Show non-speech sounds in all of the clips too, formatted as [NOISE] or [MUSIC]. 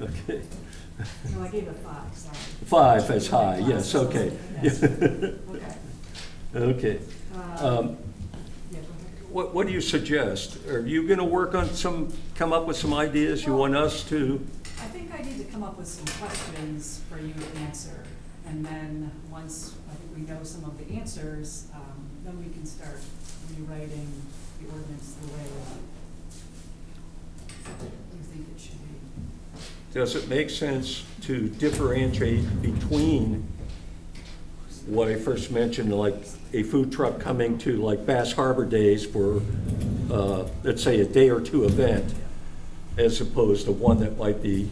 Okay. No, I gave it five, sorry. Five as high, yes, [LAUGHS] okay. Um, Yes. Okay. Okay. Uh, Um, yeah, go ahead. What, what do you suggest? Are you going to work on some, come up with some ideas you want us to? I think I need to come up with some questions for you to answer, and then, once I think we know some of the answers, um, then we can start rewriting the ordinance the way you think it should be. Does it make sense to differentiate between what I first mentioned, like a food truck coming to like Bass Harbor Days for, uh, let's say, a day or two event, as opposed to one that might be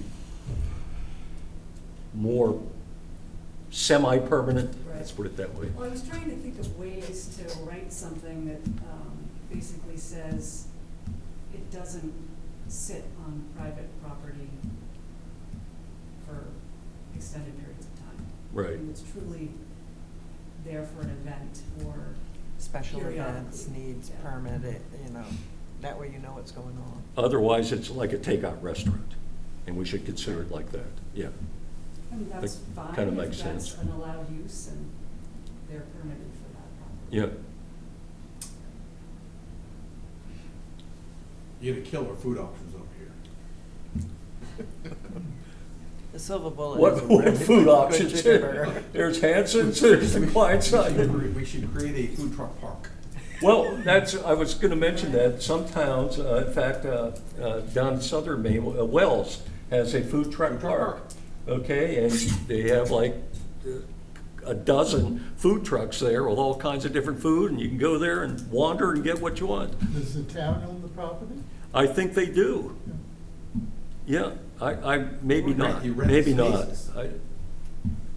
more semi-permanent? Let's put it that way. Well, I was trying to think of ways to write something that um, basically says it doesn't sit on private property for extended periods of time. Right. And it's truly there for an event or, Special events, Periodically, needs yeah. permit, it, you know, that way you know what's going on. Otherwise, it's like a takeout restaurant, and we should consider it like that, yeah. I mean, that's That fine. kinda if makes sense. That's an allowed use and they're permitted for that property. Yeah, You're gonna kill our food options over here. The silver bullet [LAUGHS] is what, a what really food good options? chicken burger. There's Hanson's, there's the Klein We should side. cre- We should create a food truck park. [LAUGHS] Well, that's, I was gonna mention that, some towns, uh, in fact, uh, uh, down in southern Maine, uh, Wells has a food truck Food truck park. park. Okay, and they have like uh, a dozen food trucks there with all kinds of different food, and you can go there and wander and get what you want. Does the town own the property? I think they do. Yeah, I, I, maybe Well, not, you rent the maybe not. spaces. I-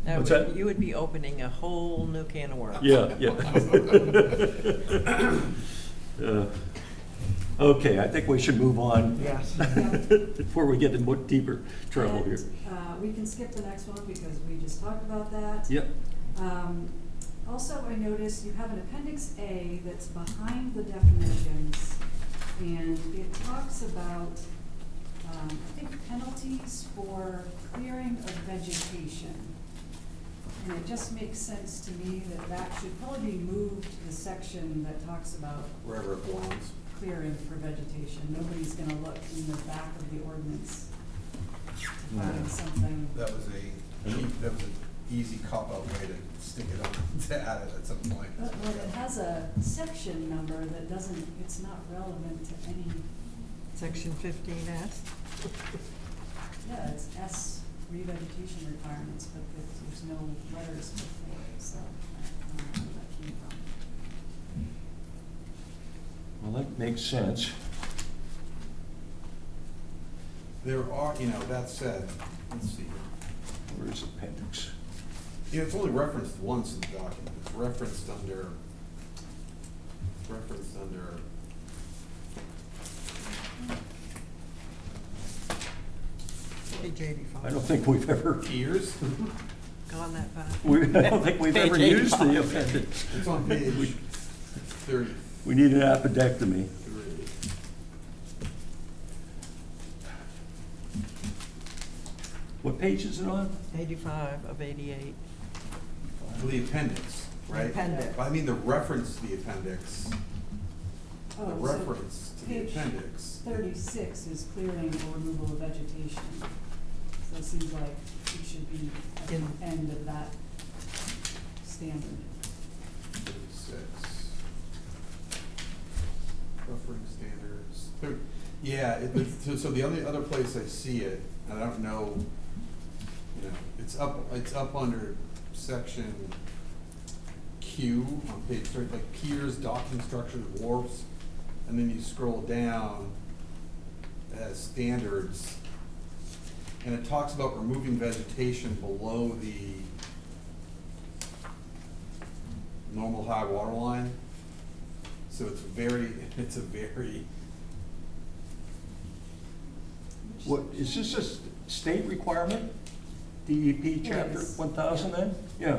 That What's would- that? You would be opening a whole new can of worms. Yeah, yeah. Uh, Okay, I think we should move on. Yes. Before we get in more deeper trouble here. And, uh, we can skip the next one because we just talked about that. Yep, Um, Also, I noticed you have an appendix A that's behind the definitions, and it talks about, um, I think penalties for clearing of vegetation. And it just makes sense to me that that should probably be moved to the section that talks about Wherever it belongs. clearing for vegetation. Nobody's gonna look in the back of the ordinance to find something. That was a cheap, that was an easy cop-out way to stick it up, [LAUGHS] to add it at some point. But well, it has a section number that doesn't, it's not relevant to any, Section fifteen S, yeah, it's S revegetation requirements, but there- there's no letters before, it, so I don't know where that came from. well, that makes sense. There are, you know, that said, let's see, Where's appendix? you know, it's only referenced once in the document, it's referenced under, it's referenced under, page eighty-five. I don't think we've ever, ears? Gone that far. we, I don't think we've ever Page used the 85. appendix. [LAUGHS] It's on page We need an appendectomy. thirty-three. What page is it on? Eighty-five of eighty-eight. The appendix, right? Appendix. I mean, the reference to the appendix, the Oh, so reference to the page appendix. Thirty-six is clearing or removal of vegetation, so it seems like it should be at In- the end of that standard. Thirty-six. Buffering standards, Thir- yeah, it, it's- so, so the only other place I see it, and I don't know, you know, it's up, it's up under section Q on page thirty, like piers, docking structures, wharfs, and then you scroll down, it has standards, and it talks about removing vegetation below the normal high water line. So it's very, [LAUGHS] it's a very, What, is this a s- state requirement? DEP chapter is. one thousand then? Yeah,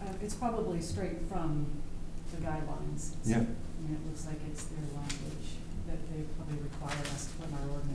Uh, it's probably straight from the guidelines. Yeah. And it looks like it's their language that they probably require us from our ordinance.